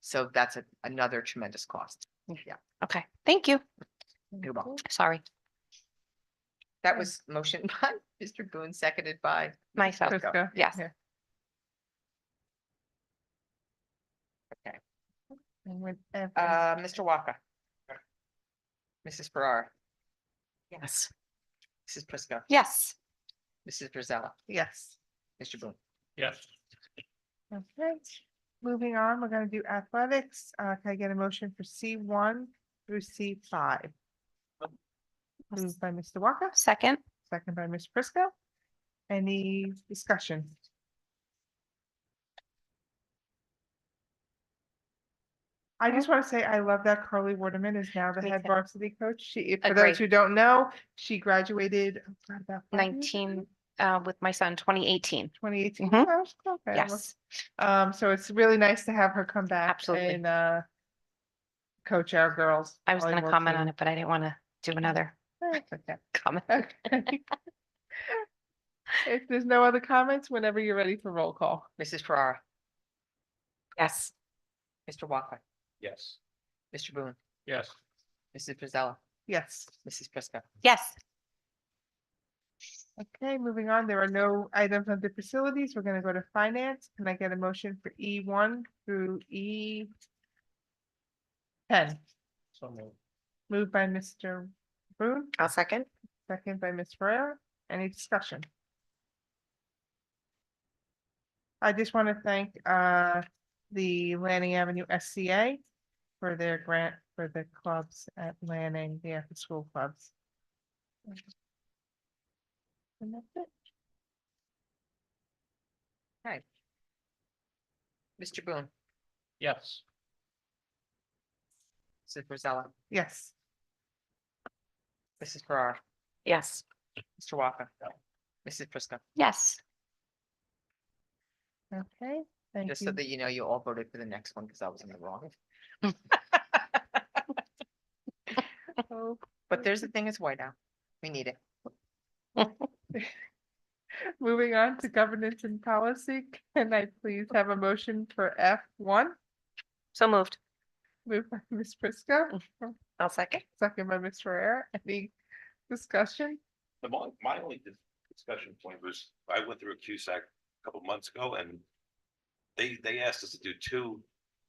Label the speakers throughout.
Speaker 1: So that's a- another tremendous cost.
Speaker 2: Okay, thank you.
Speaker 1: You're welcome.
Speaker 2: Sorry,
Speaker 1: That was motion by Mr. Boone, seconded by
Speaker 2: myself.
Speaker 1: Prisco.
Speaker 3: Prisco.
Speaker 2: Yes.
Speaker 3: Yeah.
Speaker 1: Okay.
Speaker 3: And with, uh,
Speaker 1: Uh, Mr. Walker. Mrs. Farrar,
Speaker 3: yes.
Speaker 1: Mrs. Prisco,
Speaker 2: Yes,
Speaker 1: Mrs. Brazella,
Speaker 3: Yes.
Speaker 1: Mr. Boone.
Speaker 4: Yes.
Speaker 3: Okay, moving on, we're gonna do athletics. Uh, can I get a motion for C one through C five? Moved by Mr. Walker,
Speaker 2: second,
Speaker 3: second by Ms. Prisco. Any discussion? I just want to say I love that Carly Waterman is now the
Speaker 2: Me
Speaker 3: head
Speaker 2: too.
Speaker 3: varsity coach. She, for those
Speaker 2: Agree.
Speaker 3: who don't know, she graduated oh God, about five years ago?
Speaker 2: nineteen, uh, with my son, twenty eighteen.
Speaker 3: 2018.
Speaker 2: Mhm.
Speaker 3: Oh, okay, well,
Speaker 2: Yes,
Speaker 3: Um, so it's really nice to have her come back.
Speaker 2: Absolutely.
Speaker 3: And, uh, coach our girls.
Speaker 2: I was gonna comment on it, but I didn't want to do another comment.
Speaker 3: Okay. If there's no other comments, whenever you're ready for roll call.
Speaker 1: Mrs. Farrar,
Speaker 2: Yes,
Speaker 1: Mr. Walker,
Speaker 4: Yes.
Speaker 1: Mr. Boone,
Speaker 4: Yes.
Speaker 1: Mrs. Brazella,
Speaker 3: Yes.
Speaker 1: Mrs. Prisco.
Speaker 2: yes,
Speaker 3: Okay, moving on. There are no items under facilities. We're gonna go to finance. Can I get a motion for E one through E? Ten,
Speaker 4: So moved.
Speaker 3: moved by Mr. Boone,
Speaker 1: I'll second.
Speaker 3: second by Ms. Ferrer. Any discussion? I just want to thank uh the Lanning Avenue SCA for their grant for the clubs at Lanning, the after-school clubs. And that's it.
Speaker 1: Mr. Boone,
Speaker 4: Yes.
Speaker 1: Mrs. Brazella,
Speaker 3: Yes,
Speaker 1: Mrs. Farrar,
Speaker 2: yes,
Speaker 1: Mr. Walker, Mrs. Prisco.
Speaker 2: yes.
Speaker 3: okay, thank
Speaker 1: Just so
Speaker 3: you.
Speaker 1: that you know, you all voted for the next one because I was in the wrong.
Speaker 3: Oh,
Speaker 1: But there's the thing, it's white out. We need it.
Speaker 3: Moving on to governance and policy, can I please have a motion for F one,
Speaker 2: So moved.
Speaker 3: moved by Ms. Prisco,
Speaker 2: I'll second.
Speaker 3: second by Ms. Ferrer. Any discussion?
Speaker 5: The my, my only dis- discussion point was, I went through a CUSAC a couple months ago and. They, they asked us to do two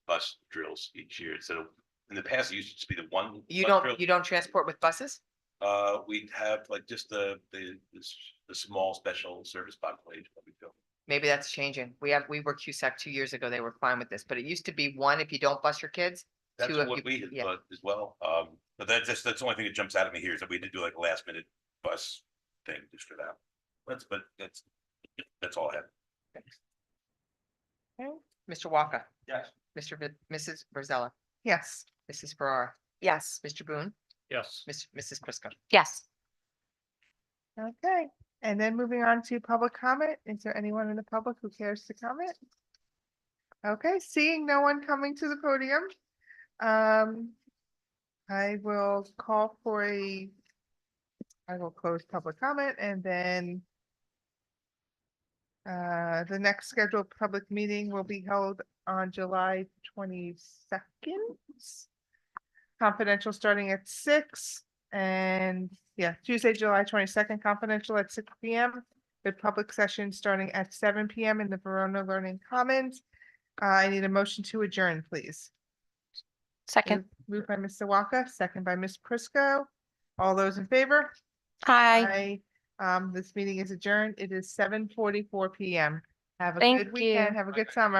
Speaker 5: bus drills each year, instead of, in the past, it used to just be the one.
Speaker 1: You
Speaker 5: bus drill.
Speaker 1: don't, you don't transport with buses?
Speaker 5: Uh, we'd have like just the, the, the, s- the small special service population that we go.
Speaker 1: Maybe that's changing. We have, we were CUSAC two years ago. They were fine with this, but it used to be one if you don't bus your kids.
Speaker 5: That's
Speaker 1: Two of
Speaker 5: what
Speaker 1: you-
Speaker 5: we had
Speaker 1: yeah.
Speaker 5: thought as well, um, but that's just, that's the only thing that jumps out at me here is that we did do like a last minute bus thing just for that. That's, but that's, that's all I have.
Speaker 1: Mr. Walker,
Speaker 5: Yes.
Speaker 1: Mr. Vi- Mrs. Brazella,
Speaker 3: Yes.
Speaker 1: Mrs. Farrar,
Speaker 2: Yes,
Speaker 1: Mr. Boone,
Speaker 4: Yes.
Speaker 1: Miss, Mrs. Prisco.
Speaker 2: yes.
Speaker 3: Okay, and then moving on to public comment. Is there anyone in the public who cares to comment? Okay, seeing no one coming to the podium. Um, I will call for a. I will close public comment and then. Uh, the next scheduled public meeting will be held on July twenty-second. Confidential starting at six. And yeah, Tuesday, July twenty-second, confidential at six P M. With public session starting at seven P M in the Verona Learning Commons. Uh, I need a motion to adjourn, please. Mm.
Speaker 2: Second.
Speaker 3: Moved by Mr. Walker, second by Ms. Prisco. All those in favor?
Speaker 2: Hi,
Speaker 3: Aye. Um, this meeting is adjourned. It is seven forty-four P M. Have a
Speaker 2: Thank
Speaker 3: good weekend.
Speaker 2: you.
Speaker 3: Have a good summer.